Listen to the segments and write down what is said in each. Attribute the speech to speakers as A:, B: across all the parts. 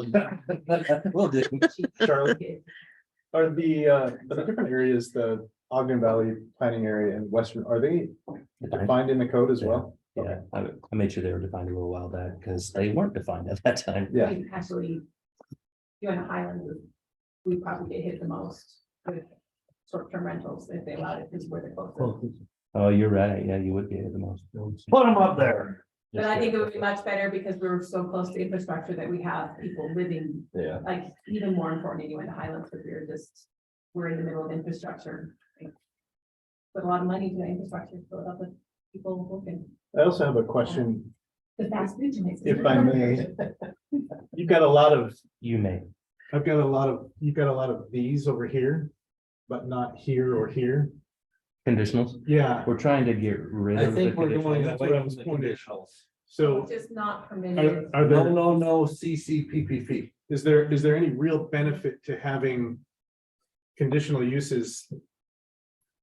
A: Will do.
B: Charlie? Are the, uh, are the different areas, the Ogden Valley planning area and Western, are they defined in the code as well?
A: Yeah, I, I made sure they were defined a little while back because they weren't defined at that time.
B: Yeah,
C: And Actually, you're in a highland, we probably get hit the most with short-term rentals if they allowed it, because we're the closest.
A: Oh, you're right. Yeah, you would be the most.
D: Put them up there.
C: But I think it would be much better because we're so close to infrastructure that we have people living,
A: Yeah.
C: like, even more important, you in the highlands, because we're just, we're in the middle of infrastructure. like, Put a lot of money into the infrastructure, to fill it up with people working,
B: I also have a question.
C: the fast food makes.
B: If I may. You've got a lot of,
A: You may.
B: I've got a lot of, you've got a lot of these over here, but not here or here.
A: Conditionals.
B: Yeah,
A: We're trying to get rid
E: I
A: of. the
E: think we're going
A: conditionals.
B: That's what I
E: away
B: was
E: from the
B: wondering.
E: conditionals.
B: so
C: Just not
B: are,
C: permitted.
B: are
E: No,
B: there,
E: no, no, CCPPP.
B: is there, is there any real benefit to having conditional uses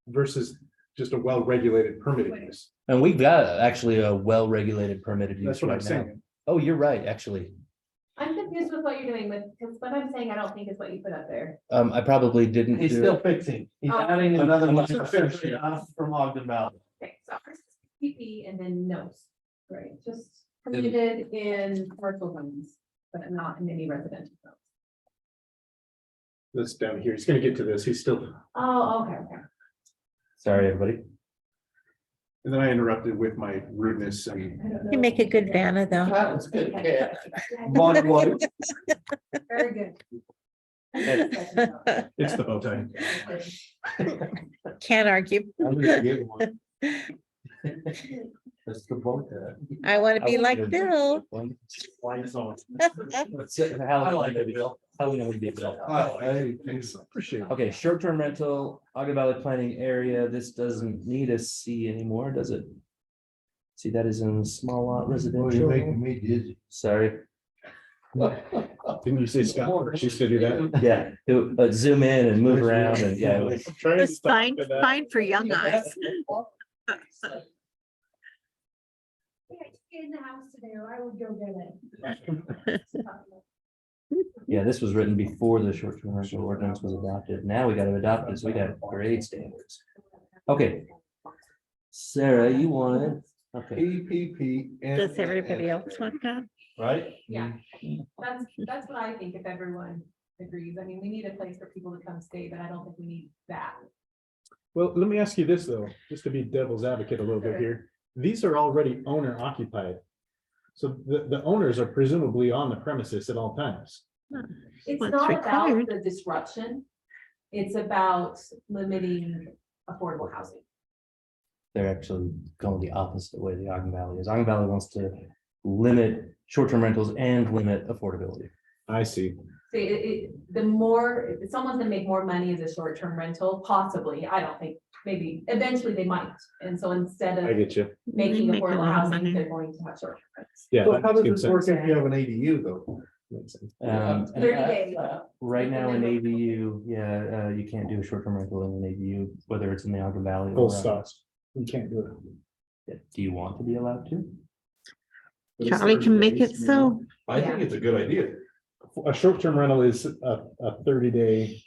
B: versus just a well-regulated permitted use?
A: And we've got actually a well-regulated permitted use
B: That's what I'm
A: right now.
B: saying.
A: Oh, you're right, actually.
C: I'm confused with what you're doing with, because what I'm saying, I don't think is what you put up there.
A: Um, I probably didn't
E: He's
A: do,
E: still fixing. He's
C: Oh.
E: adding another
B: He's
E: line
B: not finished yet.
E: off from Ogden Valley.
C: Okay, so ours is PP and then notes, right, just permitted in commercial zones, but not in any residential zones.
B: That's down here. He's gonna get to this. He's still,
C: Oh, okay, okay.
A: sorry, everybody.
B: and then I interrupted with my rudeness and
C: I don't know.
F: You make a good Vanna though.
E: That was good.
C: Okay.
E: yeah. One, one.
C: Very good.
B: it's the bow tie.
F: Can't argue.
E: I'm gonna give one. That's the vote.
F: I want to be like Bill.
E: Line zone. I like it,
A: How
E: Bill.
A: we know we did Bill.
E: Oh, hey, thanks.
B: Appreciate it.
A: Okay, short-term rental, Ogden Valley planning area, this doesn't need a C anymore, does it? See, that is in small lot
E: Oh, you're making
A: residential,
E: me dizzy.
A: sorry,
B: Didn't you say Scott? She used to do that.
A: yeah, it would- but zoom in and move around and yeah. it was-
F: It's fine, fine for young eyes.
C: In the house today, or I would go get it.
A: Yeah, this was written before the short-term rental ordinance was adopted, now we gotta adopt this, we got grade standards. Okay. Sarah, you wanted, okay,
E: PPP.
F: Does everybody else want that?
E: Right?
C: Yeah, that's, that's what I think, if everyone agrees, I mean, we need a place for people to come stay, but I don't think we need that.
B: Well, let me ask you this though, just to be devil's advocate a little bit here. These are already owner occupied. So the, the owners are presumably on the premises at all times.
C: It's
F: What's
C: not about
F: required.
C: the disruption, it's about limiting affordable housing.
A: they're actually going the opposite way the Ogden Valley is, Ogden Valley wants to limit short-term rentals and limit affordability.
B: I see.
C: So it, it, the more, if someone's gonna make more money as a short-term rental, possibly, I don't think, maybe, eventually they might. And so instead
B: I
C: of
B: get you.
C: making
F: Make a
C: affordable
F: lot of
C: housing,
F: money.
C: they're going to have short-term rentals.
B: Yeah.
E: So
B: that
E: how does
B: makes
E: this
B: good
E: work
B: sense.
E: if you have an ADU though?
B: Makes sense.
A: Um, and
C: 30
A: I-
C: days.
A: Right now in ADU, yeah, uh, you can't do a short-term rental in an ADU, whether it's in the Ogden Valley.
B: Full
A: or
B: stop. You can't do it.
A: Yeah. Do you want to be allowed to?
F: Charlie can make it so.
C: I think
E: it's a good idea.
B: A short-term rental is a, a thirty-day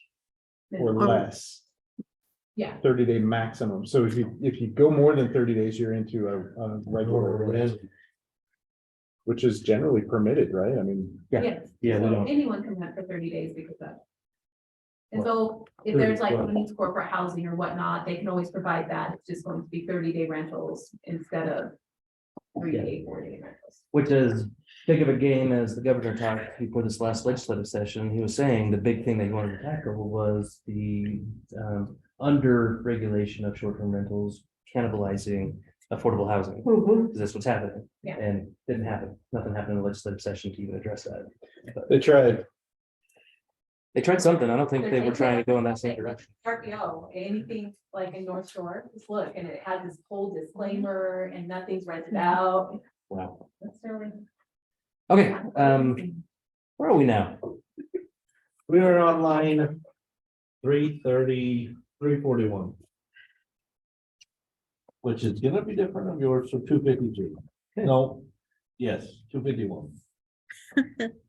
B: or less.
C: Yeah.
B: Thirty-day maximum. So if you, if you go more than thirty days, you're into a, a regular, which is generally permitted, right? I mean.
A: Yeah.
C: Yes.
A: Yeah, we
C: So
A: don't-
C: Anyone can rent for thirty days because of. And so if there's like who needs corporate housing or whatnot, they can always provide that. It's just going to be thirty day rentals instead of. Three day, four day rentals.
A: Which is big of a game as the governor talked before this last legislative session. He was saying the big thing that he wanted to tackle was the um, under regulation of short-term rentals cannibalizing affordable housing. Because that's what's happening.
C: Yeah.
A: And didn't happen. Nothing happened in the legislative session to even address that.
B: They tried.
A: They tried something. I don't think they were trying to go in that same direction.
C: RPO, anything like in North Shore, just look, and it has this whole disclaimer and nothing's rented out.
A: Mm-hmm. Wow.
C: That's really.
A: Okay, um, where are we now?
E: We are online. Three thirty, three forty-one. Which is gonna be different of yours from two fifty-two. No, yes, two fifty-one.